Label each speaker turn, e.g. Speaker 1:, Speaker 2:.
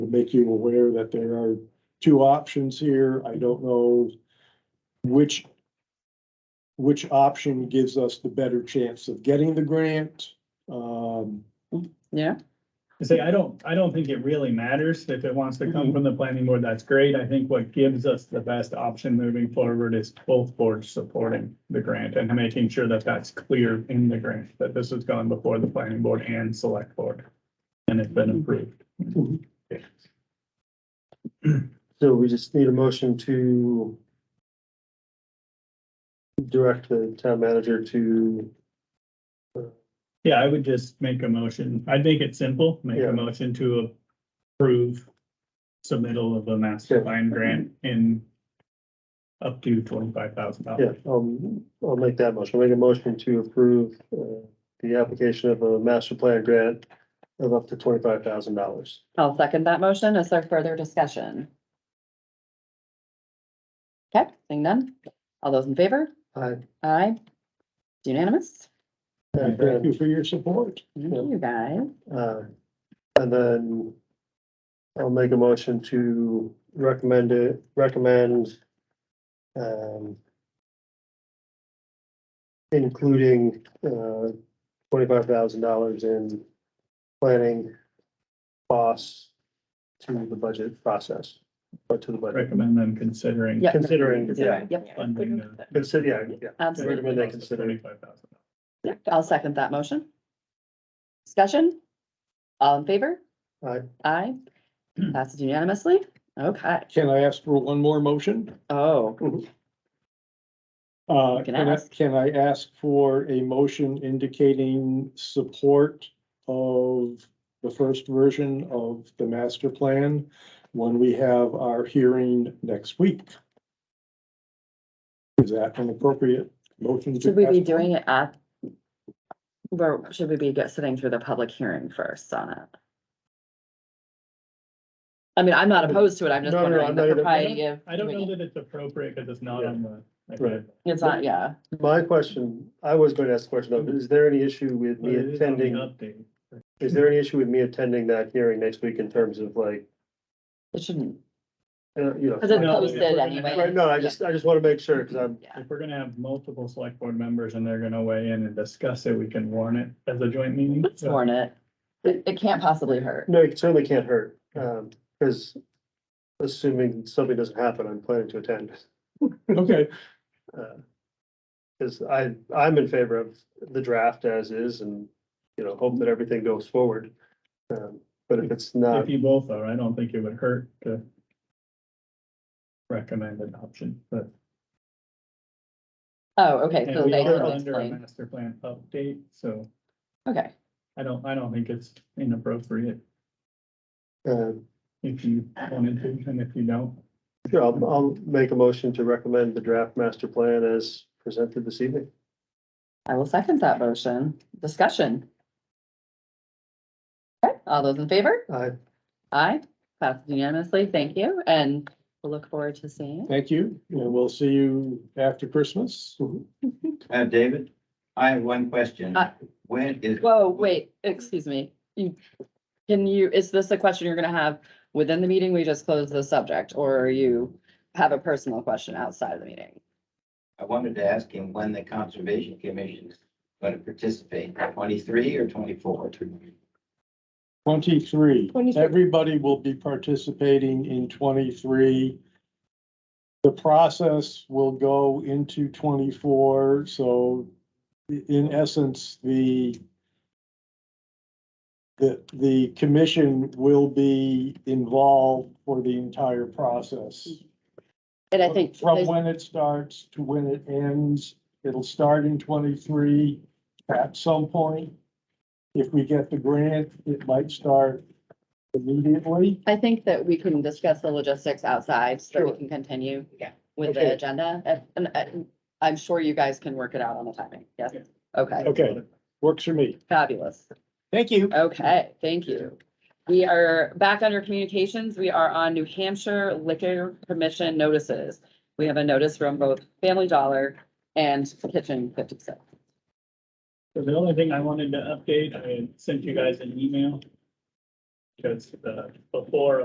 Speaker 1: make you aware that there are two options here. I don't know which which option gives us the better chance of getting the grant. Um,
Speaker 2: Yeah,
Speaker 3: I Say, I don't, I don't think it really matters. If it wants to
Speaker 4: Mm-hmm.
Speaker 3: come from the planning board, that's great. I think what gives us the best option moving forward is both boards supporting the grant and making sure that that's clear in the grant, that this has gone before the planning board and select board. And it's been
Speaker 4: Mm-hmm.
Speaker 3: approved.
Speaker 4: So we just need a motion to direct the town manager to,
Speaker 3: Yeah, I would just make a motion. I'd make it simple, make
Speaker 4: Yeah.
Speaker 3: a motion to approve submittal of a master
Speaker 4: Yeah.
Speaker 3: plan grant in up to twenty-five thousand
Speaker 4: yeah,
Speaker 3: dollars.
Speaker 4: um, I'll make that motion. I'll Make a motion to approve, uh, the application of a master plan grant of up to twenty-five thousand dollars.
Speaker 2: I'll second that motion. Is there further discussion? Okay, seeing none. All those in favor?
Speaker 4: I,
Speaker 2: Aye. It's Unanimous?
Speaker 4: and
Speaker 1: Thank you
Speaker 4: then,
Speaker 1: for your support.
Speaker 2: Thank you, guys.
Speaker 4: uh, and then I'll make a motion to recommend it, recommend, um, including, uh, twenty-five thousand dollars in planning costs to the budget process, or to the budget.
Speaker 3: Recommend them considering.
Speaker 2: Yep.
Speaker 4: Considering, yeah,
Speaker 2: Yep,
Speaker 3: Funding the-
Speaker 4: consider, yeah, yeah.
Speaker 2: absolutely.
Speaker 4: Recommend they consider.
Speaker 3: $25,000.
Speaker 2: Yep, I'll second that motion. Discussion? All in favor?
Speaker 4: Aye.
Speaker 2: Aye. Passes unanimously? Okay.
Speaker 1: Can I ask for one more motion?
Speaker 2: Oh,
Speaker 1: Uh,
Speaker 2: You can
Speaker 1: can I,
Speaker 2: ask.
Speaker 1: can I ask for a motion indicating support of the first version of the master plan when we have our hearing next week? Is that an appropriate motion? to
Speaker 2: should we be
Speaker 1: ask?
Speaker 2: doing it at? Where, should we be get, sitting through the public hearing first on it? I mean, I'm not opposed to it. I'm just
Speaker 4: No, no, no,
Speaker 2: wondering
Speaker 4: I'm
Speaker 2: the
Speaker 4: not either.
Speaker 2: propriety of.
Speaker 3: I don't know
Speaker 2: doing it.
Speaker 3: that it's appropriate because it's not
Speaker 4: Yeah.
Speaker 3: on the.
Speaker 4: Right.
Speaker 2: It's not, yeah.
Speaker 4: My question, I was going to ask the question of, is there any issue with
Speaker 3: But
Speaker 4: me
Speaker 3: it is on the
Speaker 4: attending?
Speaker 3: Update.
Speaker 4: Is there any issue with me attending that hearing next week in terms of like,
Speaker 2: It shouldn't,
Speaker 4: uh, you know?
Speaker 2: because it's
Speaker 3: No,
Speaker 2: posted
Speaker 3: yeah.
Speaker 2: anyway.
Speaker 4: Right, no, I just, I just want to make sure, because I'm,
Speaker 2: Yeah.
Speaker 3: If we're gonna have multiple select board members and they're gonna weigh in and discuss it, we can warn it as a joint meeting.
Speaker 2: Let's warn it. It, it can't possibly hurt.
Speaker 4: no, it certainly can't hurt, um, because assuming something doesn't happen, I'm planning to attend.
Speaker 1: Okay,
Speaker 4: Because I, I'm in favor of the draft as is and, you know, hope that everything goes forward. Um, But if it's not,
Speaker 3: If you both are, I don't think it would hurt to recommend an option, but.
Speaker 2: Oh, okay,
Speaker 3: And
Speaker 2: so
Speaker 3: we
Speaker 2: they
Speaker 3: are
Speaker 2: can
Speaker 3: under a
Speaker 2: explain.
Speaker 3: master plan update, so
Speaker 2: Okay,
Speaker 3: I don't, I don't think it's inappropriate
Speaker 4: um,
Speaker 3: if you wanted to, and if you don't.
Speaker 4: sure, I'll, I'll make a motion to recommend the draft master plan as presented this evening.
Speaker 2: I will second that motion. Discussion. Okay, all those in favor?
Speaker 4: I,
Speaker 2: Aye, passed unanimously. Thank you, and we'll look forward to seeing. you.
Speaker 1: thank you, and we'll see you after Christmas.
Speaker 5: Uh, David, I have one question.
Speaker 2: Uh,
Speaker 5: When is?
Speaker 2: Whoa, wait, excuse me. You, can you, is this a question you're gonna have within the meeting? We just closed the subject, or you have a personal question outside of the meeting?
Speaker 5: I wanted to ask him when the Conservation Commission is going to participate, twenty-three or twenty-four?
Speaker 1: Twenty-three,
Speaker 2: 23.
Speaker 1: everybody will be participating in twenty-three. The process will go into twenty-four, so i- in essence, the the, the commission will be involved for the entire process.
Speaker 2: And I think.
Speaker 1: From when it starts to when it ends, it'll start in twenty-three at some point. If we get the grant, it might start immediately.
Speaker 2: I think that we can discuss the logistics outside so that we
Speaker 4: Sure.
Speaker 2: can continue.
Speaker 5: Yeah.
Speaker 2: With the
Speaker 4: Okay.
Speaker 2: agenda, and, and and I'm sure you guys can work it out on the timing, yes?
Speaker 3: Yeah.
Speaker 2: Okay,
Speaker 1: Okay. Works for me.
Speaker 2: fabulous.
Speaker 1: Thank you.
Speaker 2: Okay, thank you. We are back under communications. We are on New Hampshire Liquor Commission notices. We have a notice from both Family Dollar and Kitchen Fifty Six.
Speaker 3: So the only thing I wanted to update, I had sent you guys an email. Because the, uh, before